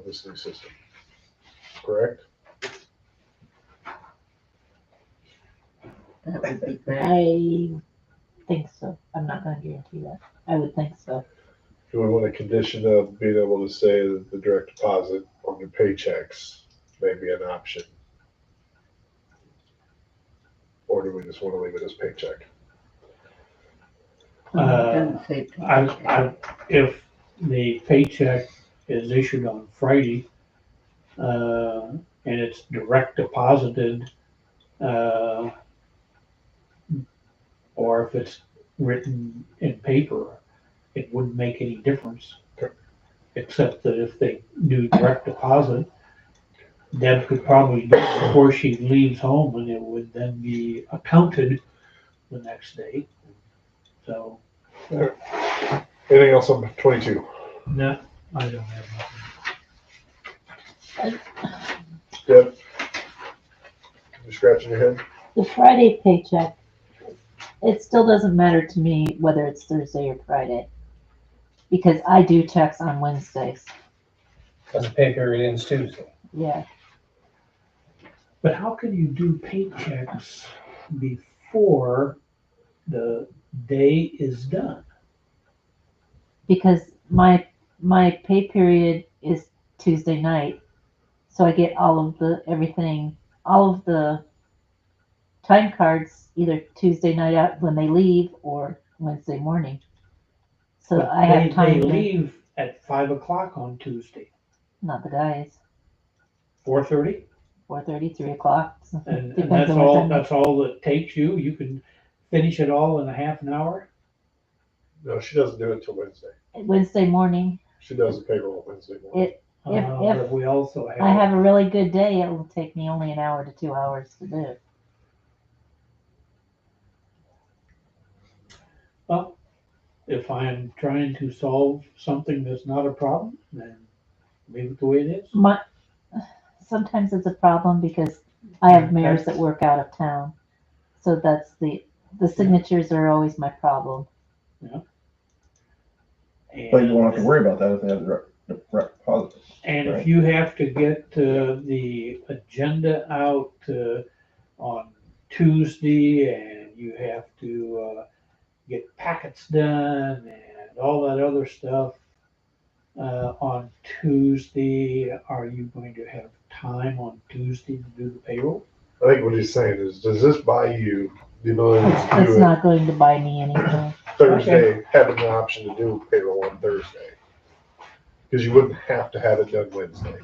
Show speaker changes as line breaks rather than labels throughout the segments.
this new system, correct?
That would be great. I think so. I'm not gonna guarantee that. I would think so.
Do we want a condition of being able to say that the direct deposit on your paychecks may be an option? Or do we just want to leave it as paycheck?
Uh,
Doesn't say
I,
paycheck.
I, if the paycheck is issued on Friday, uh, and it's direct deposited, uh, or if it's written in paper, it wouldn't make any difference.
Correct.
Except that if they do direct deposit, Deb could probably do it before she leaves home and it would then be accounted the next day. So,
Anything else on twenty-two?
no, I don't have nothing.
Deb? You scratching your head?
The Friday paycheck, it still doesn't matter to me whether it's Thursday or Friday. Because I do checks on Wednesdays.
Because the pay period ends Tuesday.
Yeah,
But how can you do paychecks before the day is done?
because my, my pay period is Tuesday night. So I get all of the, everything, all of the time cards either Tuesday night out when they leave or Wednesday morning. So
But
I
they-
have time,
They
to-
leave at five o'clock on Tuesday,
not the guys,
four thirty,
four thirty, three o'clock.
and, and
Depends
that's
on what
all,
time-
that's all it takes you. You can finish it all in a half an hour.
No, she doesn't do it till Wednesday.
Wednesday morning,
She does the payroll Wednesday morning.
If-
Uh,
if
but We also
I
have,
have a really good day, it will take me only an hour to two hours to do.
well, if I'm trying to solve something that's not a problem, then leave it the way it is.
My, sometimes it's a problem because I have mayors that work out of town. So that's the, the signatures are always my problem.
But you won't have to
And-
worry about that if they have the direct- direct deposit.
And if
Right.
you have to get uh, the agenda out uh, on Tuesday and you have to uh, get packets done and all that other stuff uh, on Tuesday, are you going to have time on Tuesday to do the payroll?
I think what he's saying is, does this buy you the ability to
It's
do it
not going to buy me anything.
Thursday, having the option to do payroll on Thursday? Because you wouldn't have to have it done Wednesday.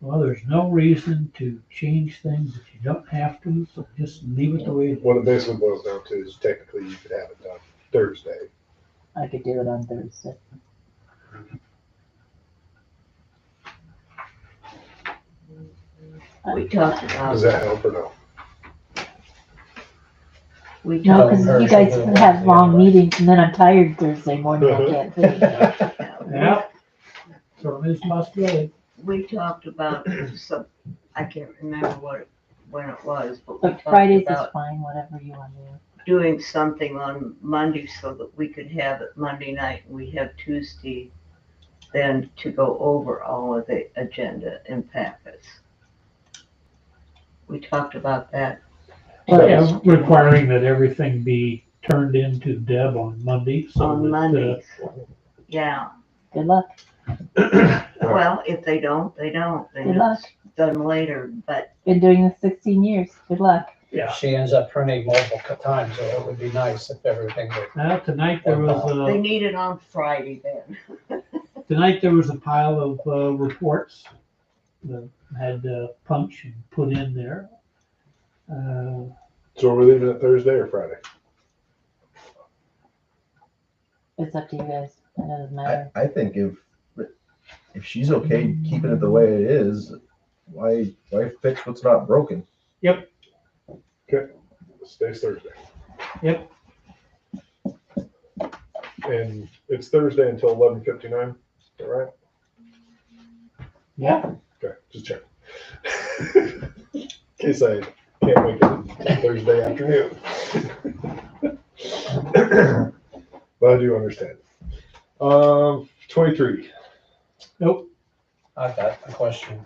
Well, there's no reason to change things if you don't have to, so just leave it the way it is.
What it basically boils down to is technically you could have it done Thursday.
I could do it on Thursday.
We talked
Does
about,
that help or no?
we
No,
talked,
because you guys have long meetings and then I'm tired Thursday morning. I can't finish.
Yeah. So Ms. Musgrave,
we talked about some, I can't remember what, it- when it was, but we
But
talked
Fridays is
about
fine, whatever you want to do.
doing something on Monday so that we could have it Monday night and we have Tuesday then to go over all of the agenda and packets. We talked about that.
Yeah, requiring that everything be turned in to Deb on Monday. so that,
On
uh,
Mondays. Yeah,
Good luck.
well, if they don't, they don't,
Good
then
luck.
it's done later, but
Been doing this sixteen years. Good luck.
Yeah.
She ends up printing multiple times, so it would be nice if everything were.
Now, tonight there
they
was
need it on Friday then.
a, tonight there was a pile of, uh, reports that had, uh, punch and put in there. Uh,
So are we leaving it Thursday or Friday?
It's up to you guys. It doesn't
I,
matter.
I think if, if she's okay keeping it the way it is, why, why fix what's not broken?
Today's Thursday.
Yep.
And it's Thursday until eleven fifty-nine, is that right?
Yeah.
Okay, just check. In case I can't make it Thursday afternoon. But I do understand. Um, twenty-three.
Nope.
I've got a question.